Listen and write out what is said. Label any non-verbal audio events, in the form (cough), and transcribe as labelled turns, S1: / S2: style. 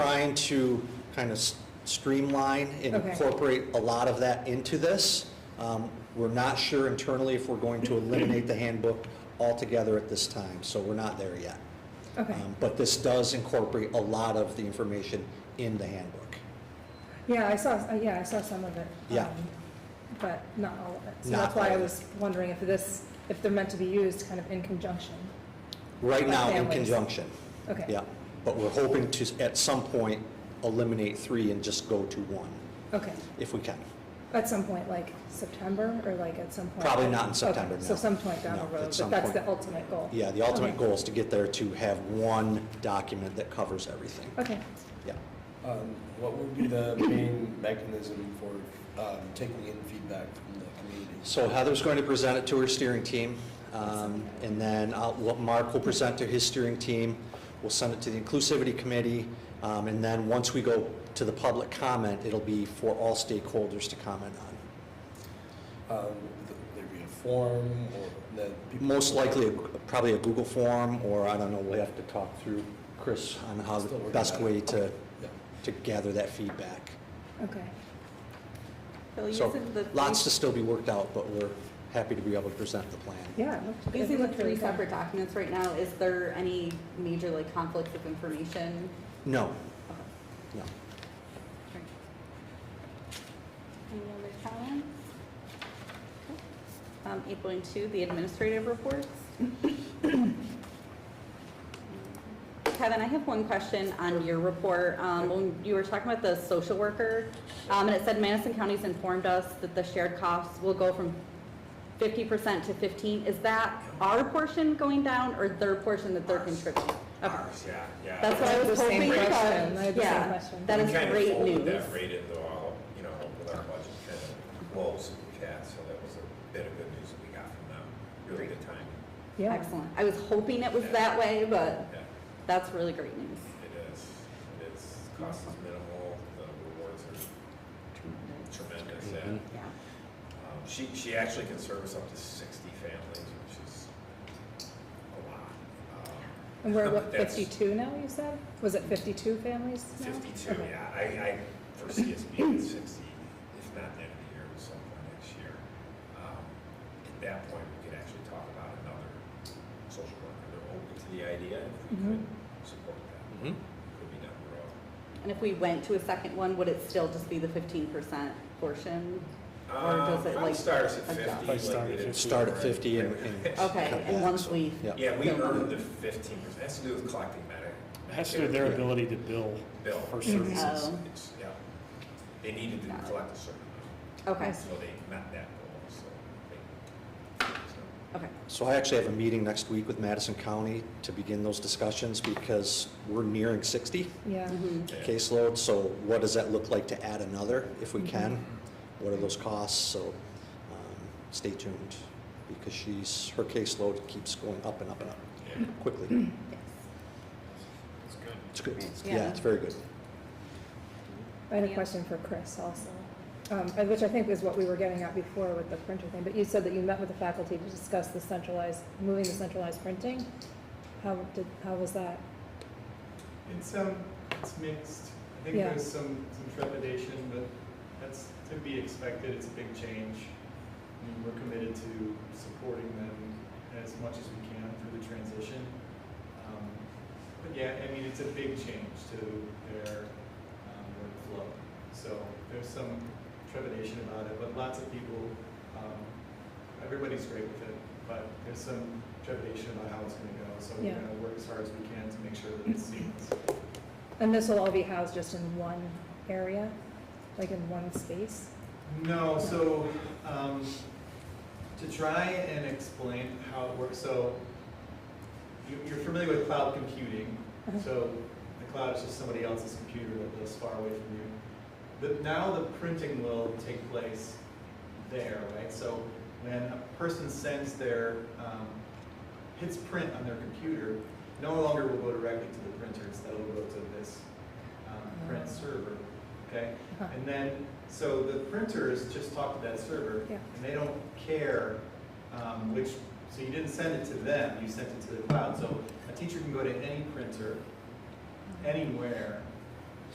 S1: trying to kind of s- streamline and
S2: Okay.
S1: incorporate a lot of that into this. Um, We're not sure internally if we're going to eliminate the handbook altogether at this time, so we're not there yet.
S2: Okay.
S1: Um, But this does incorporate a lot of the information in the handbook.
S2: Yeah, I saw, uh, yeah, I saw some of it.
S1: Yeah.
S2: um, But not all of it. So
S1: Not
S2: that's why
S1: all
S2: I
S1: of it.
S2: was wondering if this, if they're meant to be used kind of in conjunction.
S1: Right now, in
S2: Families.
S1: conjunction.
S2: Okay.
S1: Yeah, but we're hoping to, at some point, eliminate three and just go to one,
S2: Okay,
S1: if we can.
S2: at some point, like September, or like at some point?
S1: Probably not in
S2: Okay,
S1: September, no.
S2: So some point down
S1: No,
S2: the
S1: at
S2: road,
S1: some
S2: but that's
S1: point.
S2: the ultimate goal?
S1: Yeah, the ultimate
S2: Okay.
S1: goal is to get there to have one document that covers everything.
S2: Okay,
S1: Yeah.
S3: Um, What would be the main mechanism for um, taking in feedback from the community?
S1: So Heather's going to present it to her steering team, um, and then I'll- what Mark will present to his steering team. We'll send it to the Inclusivity Committee, um, and then once we go to the public comment, it'll be for all stakeholders to comment on.
S3: Um, th- There'd be a form or that people.
S1: Most likely, probably a Google form, or I don't know, we'll have to talk through Chris on how the
S3: Still working
S1: best
S3: on it.
S1: way to,
S3: Yeah.
S1: to gather that feedback.
S2: okay.
S4: Bill,
S1: So
S4: using the.
S1: lots to still be worked out, but we're happy to be able to present the plan.
S2: Yeah. it looked- it
S4: Using the
S2: looked really
S4: three
S2: fun.
S4: separate documents right now, is there any major like conflicts of information?
S1: No,
S4: Okay.
S1: no.
S4: Great. Any other comments? Okay. Um, eight point two, the administrative reports. Kevin, I have one question on your report. Um, when you were talking about the social worker, um, and it said Madison County's informed us that the shared costs will go from fifty percent to fifteen. Is that our portion going down or their portion that they're contributing? Okay.
S5: Ours, yeah, yeah.
S4: That's what
S2: I
S4: I
S2: had
S4: was
S2: the same
S4: hoping, but,
S2: question. I had the same
S4: yeah,
S2: question.
S4: that is great
S5: We kind
S4: news.
S5: of folded that rate into all, you know, with our budget kind of goals that we had, so that was a bit of good news that we got from them. Really good timing.
S2: Yeah.
S4: Excellent. I was hoping it was that way, but
S5: Yeah,
S4: that's really great news.
S5: it is, it is, cost is minimal, the rewards are tremendous, and,
S4: Yeah.
S5: um, she, she actually can service up to sixty families, which is a lot. Um,
S2: And we're what,
S5: That's-
S2: 52 now, you said? Was it 52 families now?
S5: Fifty-two,
S2: Okay.
S5: yeah, I, I foresee us being at sixty, if not the end of the year, at some point next year. Um, At that point, we could actually talk about another social worker, they're open to the idea, if we could
S2: Mhm.
S6: Mm-hmm.
S5: support
S3: Mm-hmm.
S5: that,
S1: Mhm.
S5: could be down the road.
S4: And if we went to a second one, would it still just be the fifteen percent portion? Or
S5: Um,
S4: does it,
S5: probably
S4: like,
S5: starts at
S4: adjust?
S5: fifty.
S6: Probably
S5: like
S6: start
S5: they
S6: at
S5: did at
S6: 50.
S1: Start at 50 and- and-
S5: (laughs)
S4: (laughs) Okay, and once we.
S1: Yeah.
S5: Yeah, we earned the fifteen percent, it has to do with collecting medic.
S6: It has to do with their
S5: Medicare.
S6: ability to bill
S5: Bill.
S6: for
S2: Mm-hmm.
S5: Mhm.
S6: services.
S4: Oh,
S5: It's- Yeah, they needed to
S4: Got it.
S5: collect a certain amount,
S4: Okay,
S5: so they met that goal, so they. so-
S4: okay.
S1: So I actually have a meeting next week with Madison County to begin those discussions because we're nearing 60
S2: Yeah.
S4: Mhm.
S5: Yeah.
S1: caseload. So what does that look like to add another if we can? What are those costs? So um, stay tuned because she's, her caseload keeps going up and up and up
S5: Yeah.
S1: quickly.
S5: It's good.
S1: It's good.
S4: Yeah.
S1: Yeah, it's very good.
S2: I had a
S4: Yeah.
S2: question for Chris also, um, and which I think is what we were getting at before with the printer thing. But you said that you met with the faculty to discuss the centralized, moving the centralized printing. How did, how was that?
S7: It's, um, it's mixed. I think
S2: Yeah.
S7: there's some, some trepidation, but that's to be expected. It's a big change. I mean, we're committed to supporting them as much as we can through the transition. Um, But yeah, I mean, it's a big change to their, um, workflow. So there's some trepidation about it, but lots of people, um, everybody's great with it, but there's some trepidation about how it's gonna go. So we're
S2: Yeah.
S7: gonna work as hard as we can to make sure that it's seamless.
S2: And this will all be housed just in one area, like in one space?
S7: No, so, um, to try and explain how it works, so you, you're familiar with cloud computing,
S2: Uh-huh.
S7: so the cloud is just somebody else's computer that lives far away from you. But now the printing will take place there, right? So when a person sends their, um, hits print on their computer, no longer will go directly to the printer, instead it'll go to this, um, print server, okay?
S2: Huh.
S7: And then, so the printers just talk to that server,
S2: Yeah.
S7: and they don't care um, which, so you didn't send it to
S2: Hmm.
S7: them, you sent it to the cloud. So a teacher can go to any printer, anywhere,